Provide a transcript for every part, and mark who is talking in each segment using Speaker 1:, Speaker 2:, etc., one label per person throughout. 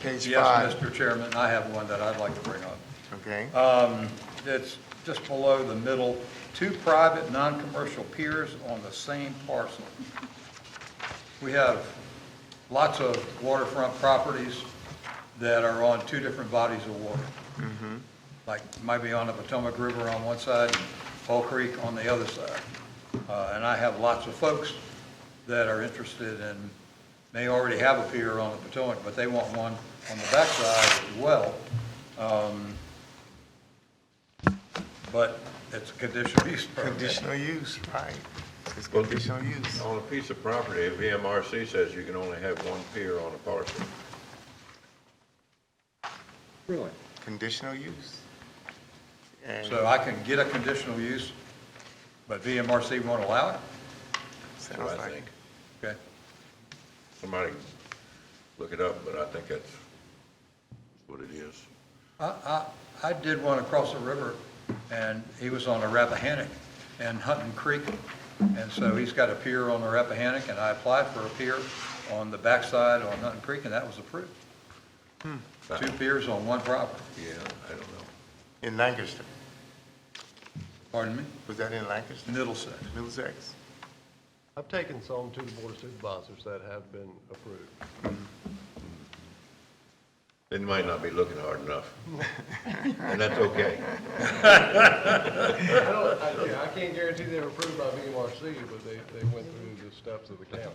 Speaker 1: page
Speaker 2: Yes,
Speaker 1: five,
Speaker 2: Mr. Chairman, I have one that I'd like to bring up.
Speaker 1: okay?
Speaker 2: Uh, It's just below the middle, two private, non-commercial piers on the same parcel. We have lots of waterfront properties that are on two different bodies of water. Like, might be on the Potomac River on one side, and Fall Creek on the other side. Uh, And I have lots of folks that are interested in, may already have a pier on the Potomac, but they want one on the backside as well. Um, But it's a conditional use permit.
Speaker 1: Conditional use, right. It's conditional use.
Speaker 3: On a piece of property, if E VMRC says you can only have one pier on a parcel.
Speaker 4: Really?
Speaker 1: Conditional use. And
Speaker 2: So I can get a conditional use, but VMRC won't allow it?
Speaker 3: so
Speaker 1: sounds
Speaker 3: I
Speaker 1: like,
Speaker 3: think,
Speaker 2: Okay.
Speaker 3: somebody can look it up, but I think that's what it is.
Speaker 2: I, I, I did one across the river, and he was on the Rappahannock and Hunting Creek, and so he's got a pier on the Rappahannock, and I applied for a pier on the backside on Hunting Creek, and that was approved. Two piers on one property,
Speaker 3: Yeah, I don't know.
Speaker 1: in Lancaster.
Speaker 2: pardon me,
Speaker 1: Was that in Lancaster?
Speaker 2: Middlesex.
Speaker 1: Middlesex?
Speaker 4: I've taken some to the board of supervisors that have been approved.
Speaker 3: They might not be looking hard enough. And that's okay.
Speaker 4: I don't, I, yeah, I can't guarantee they were approved by VMRC, but they, they went through the steps of the county.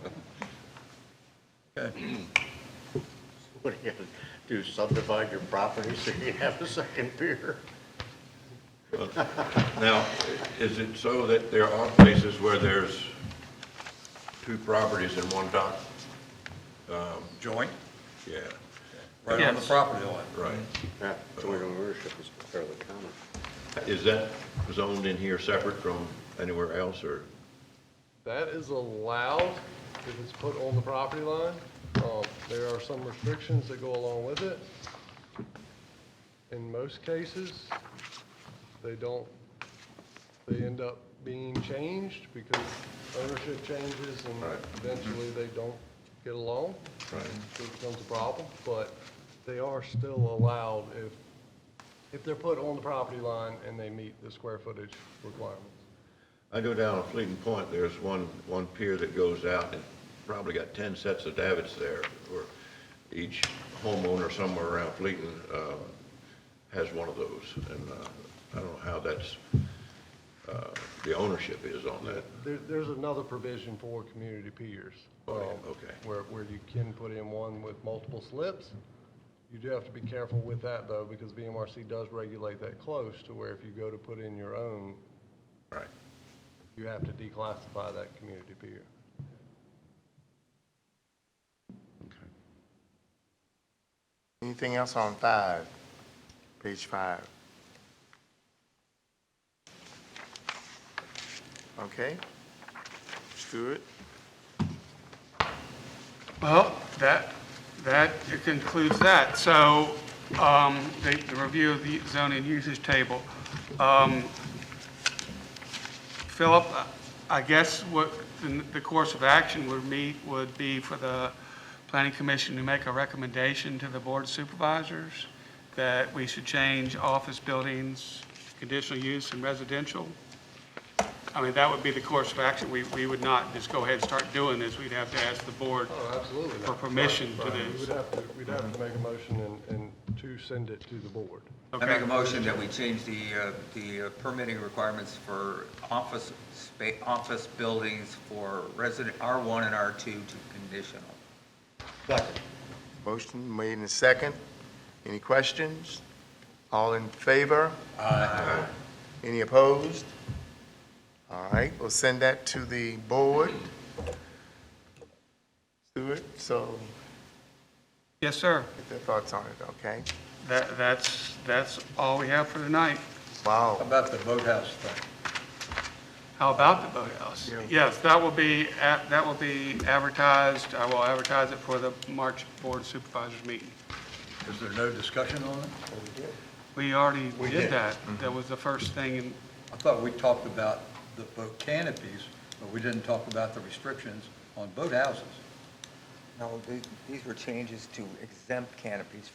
Speaker 5: What are you gonna do, subdivide your property so you have a second pier?
Speaker 3: Now, is it so that there are places where there's two properties in one dock?
Speaker 2: Joint,
Speaker 3: Yeah,
Speaker 2: right on the property line.
Speaker 3: right.
Speaker 1: Mm-hmm.
Speaker 5: Yeah, joint ownership is fairly common.
Speaker 3: Is that zoned in here separate from anywhere else, or?
Speaker 4: That is allowed if it's put on the property line. Um, There are some restrictions that go along with it. In most cases, they don't, they end up being changed because ownership changes and
Speaker 3: Right.
Speaker 4: eventually they don't get along.
Speaker 3: Right.
Speaker 4: So it becomes a problem, but they are still allowed if, if they're put on the property line and they meet the square footage requirements.
Speaker 3: I go down on Fleeting Point, there's one, one pier that goes out, and probably got 10 sets of davits there, where each homeowner somewhere around Fleeting uh, has one of those, and uh, I don't know how that's, uh, the ownership is on that.
Speaker 4: There, there's another provision for community piers.
Speaker 3: Oh, yeah,
Speaker 4: um,
Speaker 3: okay.
Speaker 4: Where, where you can put in one with multiple slips. You do have to be careful with that though, because VMRC does regulate that close to where if you go to put in your own,
Speaker 3: Right.
Speaker 4: you have to declassify that community pier.
Speaker 1: Anything else on five? Page five. Okay. Stewart?
Speaker 6: Well, that, that concludes that. So um, the the review of the zoning usage table. Um, Philip, I guess what the- the course of action would meet would be for the planning commission to make a recommendation to the board of supervisors that we should change office buildings, conditional use and residential. I mean, that would be the course of action. We, we would not just go ahead and start doing this. We'd have to ask the board
Speaker 4: Oh, absolutely.
Speaker 6: for permission to
Speaker 4: We would
Speaker 6: do.
Speaker 4: have to, we'd have to make a motion and, and to send it to the board.
Speaker 7: I make a motion that we change the, uh, the uh, permitting requirements for office spa, office buildings for resident, R1 and R2 to conditional.
Speaker 1: Motion made in second. Any questions? All in favor? Aye. Any opposed? All right, we'll send that to the board. Stewart, so
Speaker 6: Yes, sir.
Speaker 1: get their thoughts on it, okay?
Speaker 6: That, that's, that's all we have for tonight.
Speaker 2: How
Speaker 1: Wow,
Speaker 2: about the boathouse thing?
Speaker 6: How about the boathouse?
Speaker 1: Yeah.
Speaker 6: Yes, that will be, a- that will be advertised. I will advertise it for the March Board Supervisors meeting.
Speaker 2: Is there no discussion on it?
Speaker 6: We already did that. That was the first thing, and
Speaker 2: I thought we talked about the boat canopies, but we didn't talk about the restrictions on boathouses. No, the- these were changes to exempt canopies